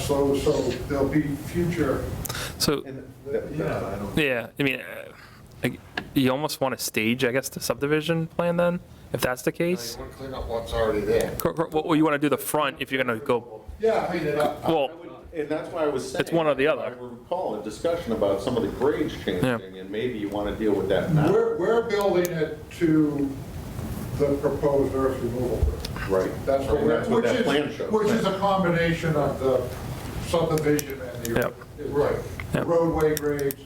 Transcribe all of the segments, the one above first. so, so there'll be future. So, Yeah. yeah, I mean, uh, like, you almost want to stage, I guess, the subdivision plan then, if that's the case? want to clean up what's already there. Cor- cor- Well, you want to do the front if you're going to go, Yeah, uh, clean it up. well, And that's why I was saying. It's one or the other. I recall a discussion about some of the grades changing, Yeah. and maybe you want to deal with that now. We're, we're building it to the proposed earth removal. Right. That's what And we're, that's what which that plan is, shows. which is a combination of the subdivision and the, Yep. right, the Yep. roadway grades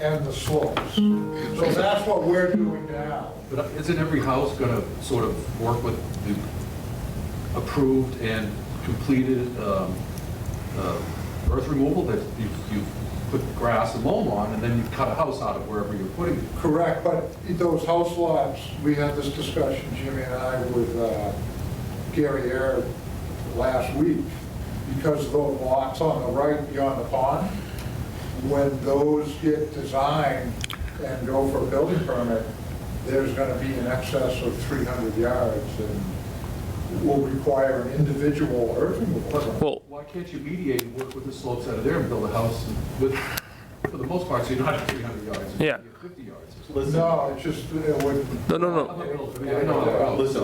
and the slopes. So that's what we're doing now. But uh, isn't every house going to sort of work with the approved and completed um, uh, earth removal that you, you put grass and loam on, and then you cut a house out of wherever you're putting it? Correct, but those house lots, we had this discussion, Jimmy and I, with uh, Gary Air last week, because those lots on the right beyond the pond, when those get designed and go for a building permit, there's going to be in excess of 300 yards and will require an individual earth removal. permit. well, Why can't you mediate and work with the slopes out of there and build a house with, for the most part, so you're not at 300 yards? you're Yeah. at 50 yards. Listen, No, it's just, it would. no, no, I'm no. not gonna- I mean, I know. listen,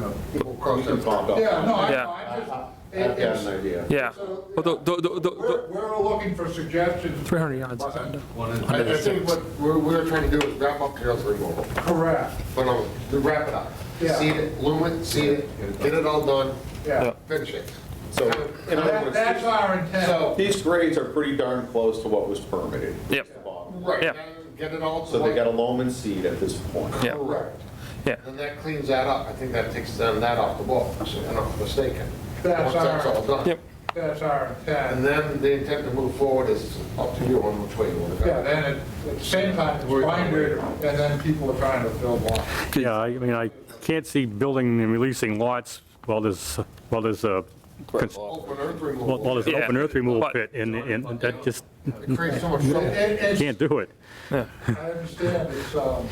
No. we'll cross that bond off. Yeah, no, I- Yeah. I just. I've got it's- an idea. Yeah. So, Well, tho- tho- tho- tho- We're, we're looking for suggestions. 300 yards. But- One is- I I think what we're, we're trying to do is wrap up Carol's removal, Correct, but no, to wrap it up. Yeah. Seed it, loom it, seed it, get it all done, yeah. finish it. So, in other That- words, That's our intent. so these grades are pretty darn close to what was permitted. Yep. It's the bottom. Right, Yeah. now get it all. to So they one- got a loam and seed at this point. Yeah. Correct. Yeah. And that cleans that up. I think that takes then that off the books, if I'm not mistaken. That's Once that's our- all done. Yep. That's our And intent. then the intent to move forward is up to you on which way you want to Yeah, go. then at- at the same time, it's binder, and then people are trying to fill lots. Yeah, I mean, I can't see building and releasing lots while there's, while there's a, cons- while Open earth while removal. there's an Yeah. open earth removal But- pit, and, and that just, It creates so much trouble. It- can't it's- do it. I understand, it's, um,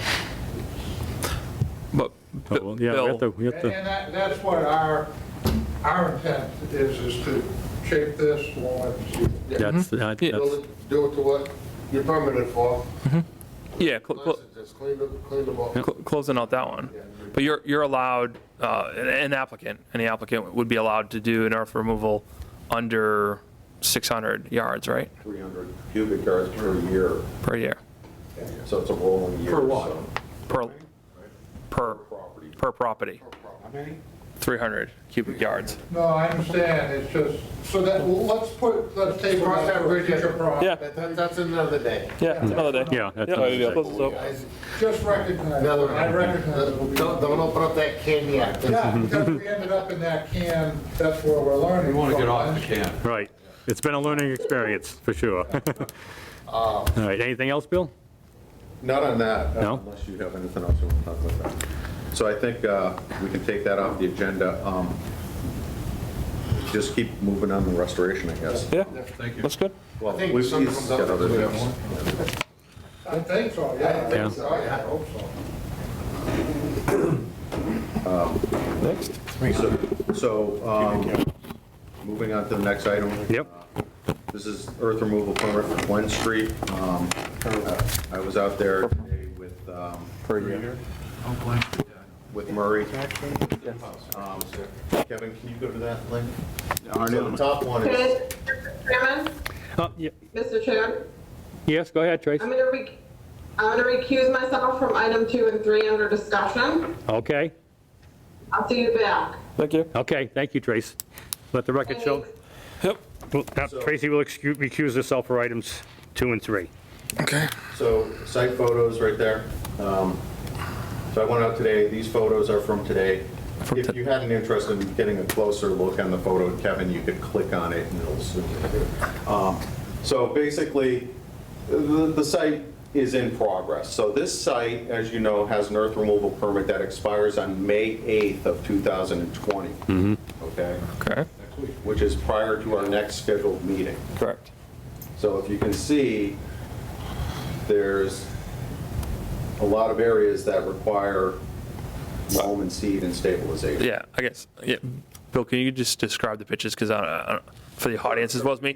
But, So, Bill, Oh, Yeah, we have to, Bill, we have and to, and that, that's what our, our intent is, is to shape this, loam it, seed it. that's, that- that's, Build it, Do it to what you're permitted for. yeah, cl- cl- Nice, Just clean the, clean the book. cl- closing out that one. But you're, you're allowed, uh, an- an applicant, any applicant would be allowed to do an earth removal under 600 yards, right, 300 cubic yards per year, per year, so it's a rolling year. Per lot. so per, per, Property. per property, How many? 300 cubic yards. No, I understand, it's just, so that, well, let's put, let's take Cross that that bridge. future problem. Yeah. That, that- that's another day. Yeah, it's another day. yeah. that's Yeah, unacceptable. close this up. Guys, Just recognize, it. Another I recognize it will Don't, be. don't open up that can yet. Yeah, because we ended up in that can, that's where we're learning. We want to get off the from. can. Right. It's been a learning experience, for sure. Um, All right, anything else, Bill? Not on that. uh, No? Unless you have anything else you want to talk about that. So I think uh, we can take that off the agenda. Um, Just keep moving on the restoration, I guess. Yeah, Thank you. that's good. Well, I think we've- something he's comes got up. other We have things. one. I think so, yeah. I Yeah. think so, I hope so. Next. So- So, um, moving on to the next item. Uh, Yep. This is earth removal permit for Glen Street. Um, I was out there today with, um, with Murray. Um, Kevin, can you go to that link? So the top one is, Okay, Mr. Chairman, Uh, ye- Mr. Chairman, Yes, go ahead, Trace. I'm gonna rec, I'm gonna recuse myself from item two and three under discussion. Okay, I'll see you back. Thank you. okay, thank you, Trace. Let the record show. Thanks. Yep. Well, now, Tracy will excu- recuse herself for items two and three. Okay. so site photos right there. Um, So I went out today, these photos are from today. From If to- you had an interest in getting a closer look on the photo, Kevin, you could click on it and it'll zoom in. Um, So basically, the, the site is in progress. So this site, as you know, has an earth removal permit that expires on May 8th of 2020. Mm-hmm. Okay? Okay, Which is prior to our next scheduled meeting. correct. So if you can see, there's a lot of areas that require loam and seed and stabilization. Yeah, I guess, yeah. Bill, can you just describe the pictures, because I, I, don't- for the audience as well as me?